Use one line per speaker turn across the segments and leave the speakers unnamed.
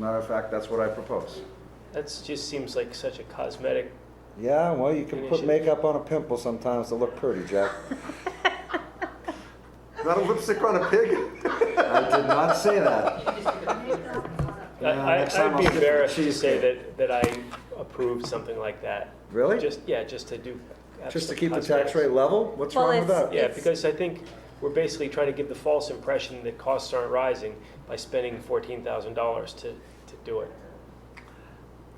Matter of fact, that's what I propose.
That just seems like such a cosmetic.
Yeah, well, you can
Finish
put
it.
makeup on a pimple sometimes to look pretty, Jack.
Not a lipstick on a pig?
I did not say that. Uh,
I,
Yeah,
I,
next time
I'd be
I'll skip the
embarrassed to say
cheesecake.
that, that I approved something like that.
Really?
Just yeah, just to do. have
Just to
some
keep the
cosmetics.
tax rate level? What's
Well,
wrong with
it's-
that?
Yeah, because I think we're basically trying to give the false impression that costs aren't rising by spending fourteen thousand dollars to to do it.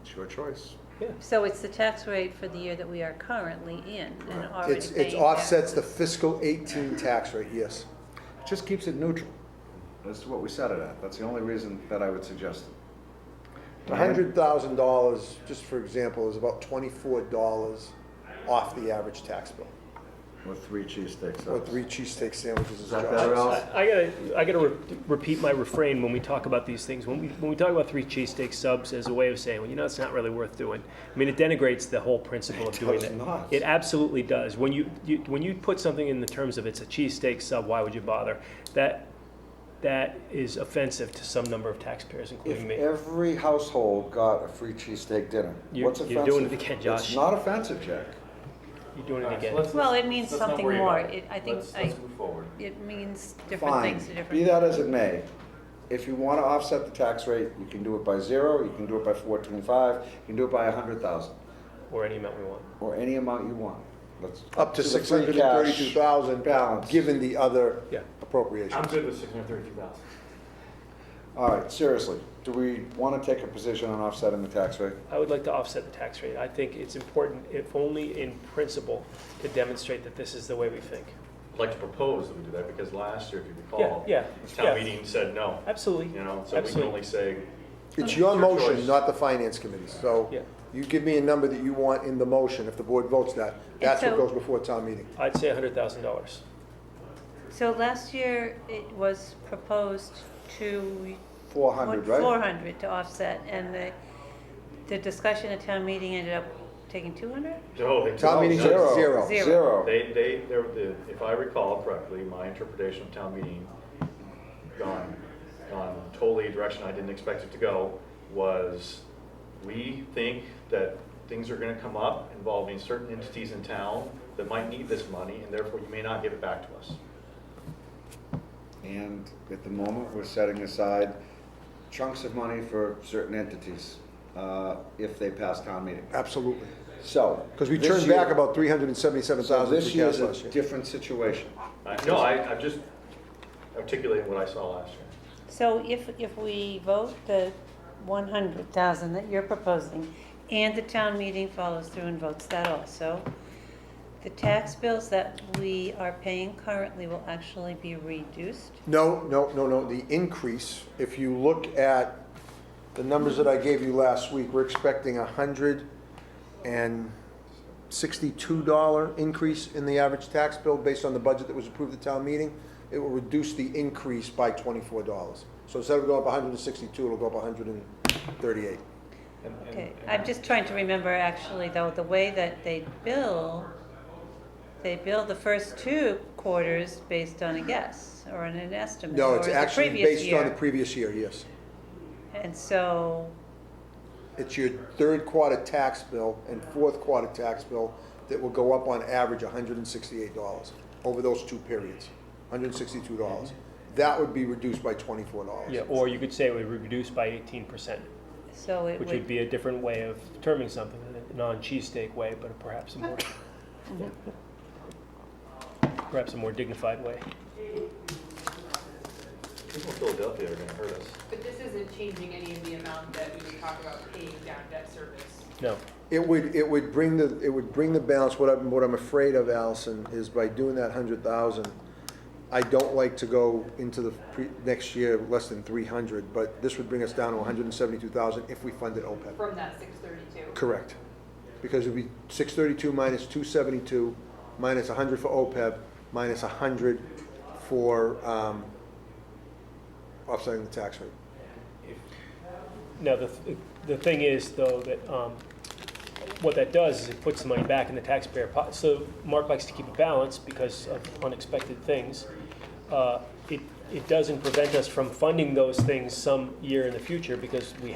It's your choice.
Yeah.
So it's the tax rate for the year that we are currently in and already
It's,
paying.
it offsets the
taxes.
fiscal 18 tax rate, yes.
Just keeps it neutral.
That's what we set it at. That's the only reason that I would suggest it.
$100,000, just for example, is about $24 off the average tax bill,
With three cheesesteaks.
or three cheesesteak sandwiches.
Is that better, Al?
I I gotta, I gotta re- repeat my refrain when we talk about these things. When we, when we talk about three cheesesteak subs as a way of saying, well, you know, it's not really worth doing. I mean, it denigrates the whole principle of doing
does
it.
not.
It absolutely does. When you, you when you put something in the terms of it's a cheesesteak sub, why would you bother? That that is offensive to some number of taxpayers, including
If
me.
every household got a free cheesesteak dinner,
You-
what's offensive?
you're doing it again,
It's
Josh.
not offensive, Jack.
You're doing it again.
Well, it means
Let's not
something
worry
more.
about
It-
it.
I think
Let's-
I-
Let's move forward.
It means different
Fine,
things to different.
be that as it may, if you want to offset the tax rate, you can do it by zero, you can do it by four twenty-five, you can do it by a hundred thousand,
or any amount we want.
or any amount you want. Let's-
Up to
the free cash.
632,000
balance.
Given the other
Yeah.
appropriations.
I'm good with six hundred thirty-two thousand.
All right, seriously, do we want to take a position on offsetting the tax rate?
I would like to offset the tax rate. I think it's important, if only in principle, to demonstrate that this is the way we think.
I'd like to propose that we do that, because last year, if you
Yeah,
recall,
yeah, yeah.
town meeting said no,
Absolutely.
you know, so we can
Absolutely.
only say,
It's your
Your
motion,
choice.
not the finance committee, so
Yeah.
you give me a number that you want in the motion, if the board votes that, that's what
so-
goes before town meeting.
I'd say hundred thousand dollars.
So last year, it was proposed to.
Four hundred,
Four
right?
hundred to offset, and the, the discussion at town meeting ended up taking two hundred?
no, they.
Town meeting said
Zero.
zero.
Zero.
Zero.
They, they, there, the, if I recall correctly, my interpretation of town meeting, gone, gone totally a direction I didn't expect it to go, was we think that things are gonna come up involving certain entities in town that might need this money, and therefore you may not give it back to us.
And at the moment, we're setting aside chunks of money for certain entities, uh, if they pass town meeting.
Absolutely,
So.
because we
this
turned
year-
back about 377,000
So
free
this
cash
year's
last
a
year.
different situation.
I- No, I, I'm just articulating what I saw last year.
So if, if we vote the one hundred thousand that you're proposing, and the town meeting follows through and votes that also, the tax bills that we are paying currently will actually be reduced.
No, no, no, no, the increase, if you look at the numbers that I gave you last week, we're expecting a hundred and sixty-two dollar increase in the average tax bill based on the budget that was approved at town meeting. It will reduce the increase by twenty-four dollars. So instead of going up hundred and sixty-two, it'll go up hundred and thirty-eight.
And- and-
Okay,
and-
I'm just trying to remember actually though, the way that they bill, they bill the first two quarters based on a guess or on an estimate
No,
or
it's
the
actually
previous
based on the
year.
previous year, yes.
And so,
It's your third quarter tax bill and fourth quarter tax bill that will go up on average hundred and sixty-eight dollars over those two periods, hundred and sixty-two dollars. That would be reduced by twenty-four dollars.
Yeah, or you could say we reduce by eighteen percent,
so it
which would
would,
be a different way of determining something, a non-cheesesteak way, but perhaps a more, perhaps a more dignified way.
People in Philadelphia are gonna hurt us.
But this isn't changing any of the amount that we would talk about paying down debt service.
No,
It would, it would bring the, it would bring the balance, what I'm, what I'm afraid of, Allison, is by doing that hundred thousand, I don't like to go into the pre, next year less than three hundred, but this would bring us down to hundred and seventy-two thousand if we funded OPEB.
From that six thirty-two.
Correct. Because it'd be six thirty-two minus two seventy-two, minus a hundred for OPEB, minus a hundred for, um, offsetting the tax rate.
no, the, th- the thing is though that, um, what that does is it puts the money back in the taxpayer pot. So Mark likes to keep a balance because of unexpected things. Uh, It, it doesn't prevent us from funding those things some year in the future because we